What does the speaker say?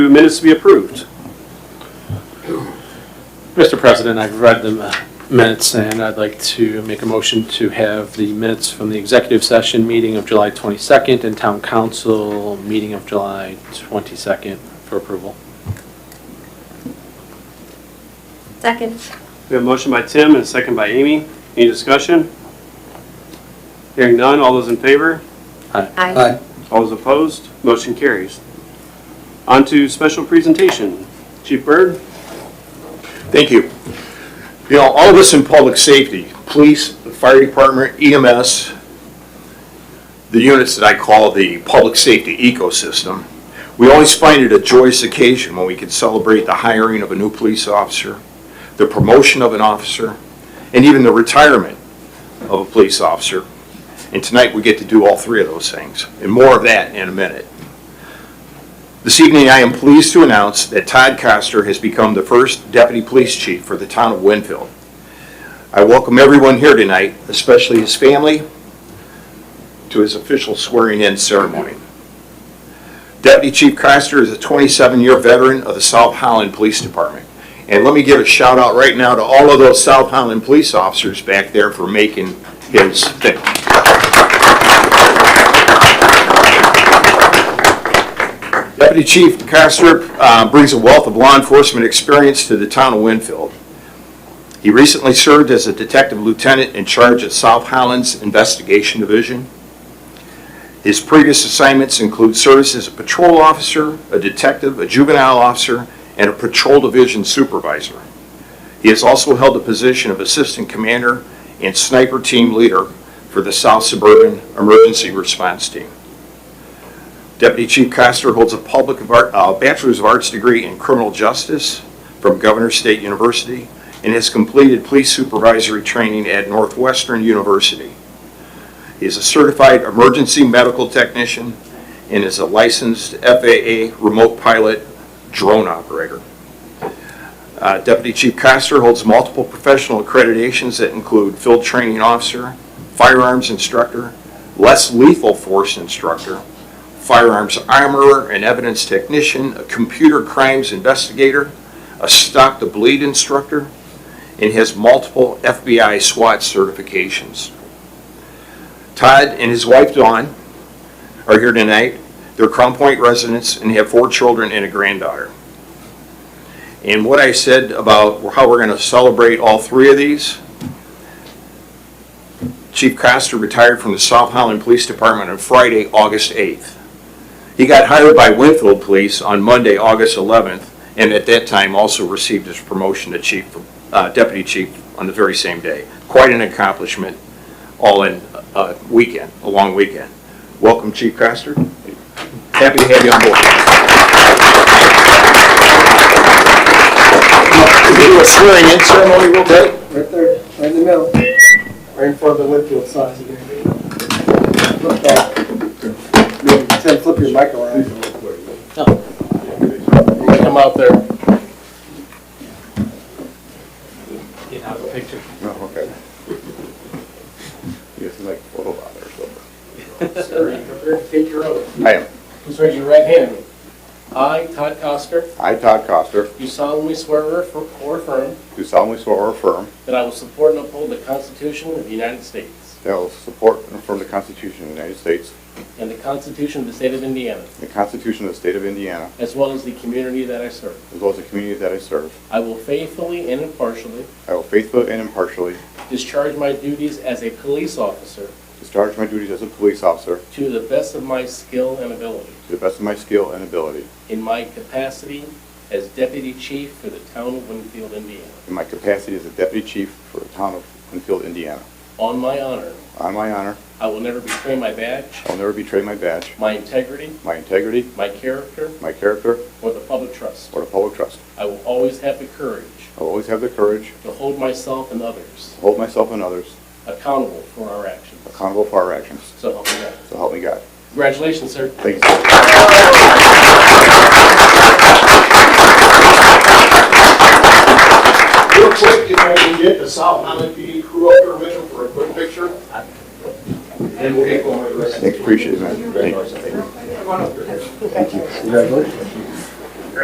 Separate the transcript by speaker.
Speaker 1: Minutes to be approved. Mr. President, I've read the uh, minutes, and I'd like to make a motion to have the minutes from the executive session meeting of July 22nd and town council meeting of July 22nd for approval.
Speaker 2: Second.
Speaker 1: We have a motion by Tim and a second by Amy. Any discussion? Hearing none, all those in favor?
Speaker 2: Aye.
Speaker 1: All those opposed? Motion carries. On to special presentation. Chief Byrd?
Speaker 3: Thank you. You know, all of us in public safety, police, fire department, EMS, the units that I call the public safety ecosystem, we always find it a joyous occasion when we can celebrate the hiring of a new police officer, the promotion of an officer, and even the retirement of a police officer. And tonight, we get to do all three of those things, and more of that in a minute. This evening, I am pleased to announce that Todd Coster has become the first deputy police chief for the town of Winfield. I welcome everyone here tonight, especially his family, to his official swearing-in ceremony. Deputy Chief Coster is a 27-year veteran of the South Holland Police Department. And let me give a shout out right now to all of those South Holland police officers back there for making his thing. Deputy Chief Castrop uh, brings a wealth of law enforcement experience to the town of Winfield. He recently served as a detective lieutenant in charge of South Highlands Investigation Division. His previous assignments include service as a patrol officer, a detective, a juvenile officer, and a patrol division supervisor. He has also held the position of assistant commander and sniper team leader for the South Suburban Emergency Response Team. Deputy Chief Coster holds a public of art, uh, Bachelor's of Arts degree in criminal justice from Governor State University and has completed police supervisory training at Northwestern University. He is a certified emergency medical technician and is a licensed FAA remote pilot drone operator. Uh, Deputy Chief Coster holds multiple professional accreditations that include field training officer, firearms instructor, less lethal force instructor, firearms armorer and evidence technician, a computer crimes investigator, a stop the bleed instructor, and has multiple FBI SWAT certifications. Todd and his wife Dawn are here tonight. They're Crown Point residents and have four children and a granddaughter. And what I said about how we're going to celebrate all three of these, Chief Coster retired from the South Holland Police Department on Friday, August 8th. He got hired by Winfield Police on Monday, August 11th, and at that time also received his promotion to chief, uh, deputy chief on the very same day. Quite an accomplishment, all in a weekend, a long weekend. Welcome, Chief Coster. Happy to have you on board. We'll Do a swearing-in ceremony real quick.
Speaker 4: Right there, right in the middle, right in front of the Winfield sign. Flip that. Maybe, Tim, flip your mic around. Come out there.
Speaker 1: You have a picture.
Speaker 5: No, okay. You guys can like photo out or something.
Speaker 4: Take your oath.
Speaker 5: I am.
Speaker 4: Please raise your right hand. I, Todd Coster,
Speaker 5: I, Todd Coster,
Speaker 4: do solemnly swear or affir- or affirm
Speaker 5: do solemnly swear or affirm
Speaker 4: that I will support and uphold the Constitution of the United States
Speaker 5: that I will support and affirm the Constitution of the United States,
Speaker 4: and the Constitution of the State of Indiana,
Speaker 5: the Constitution of the State of Indiana,
Speaker 4: as well as the community that I serve.
Speaker 5: as well as the community that I serve.
Speaker 4: I will faithfully and impartially
Speaker 5: I will faithfully and impartially
Speaker 4: discharge my duties as a police officer
Speaker 5: discharge my duties as a police officer
Speaker 4: To the best of my skill and ability.
Speaker 5: to the best of my skill and ability,
Speaker 4: In my capacity as deputy chief for the town of Winfield, Indiana.
Speaker 5: in my capacity as a deputy chief for the town of Winfield, Indiana.
Speaker 4: On my honor,
Speaker 5: On my honor,
Speaker 4: I will never betray my badge,
Speaker 5: I will never betray my badge,
Speaker 4: my integrity,
Speaker 5: my integrity,
Speaker 4: my character,
Speaker 5: my character,
Speaker 4: or the public trust.
Speaker 5: or the public trust.
Speaker 4: I will always have the courage
Speaker 5: I will always have the courage
Speaker 4: to hold myself and others
Speaker 5: to hold myself and others
Speaker 4: accountable for our actions.
Speaker 5: accountable for our actions.
Speaker 4: So help me God.
Speaker 5: So help me God.
Speaker 4: Congratulations, sir.
Speaker 5: Thank you. Real quick, if I can get the South Highland PD crew up here with for a quick picture. And we'll get going with the rest. Appreciate it, man. Thank you. Congratulations.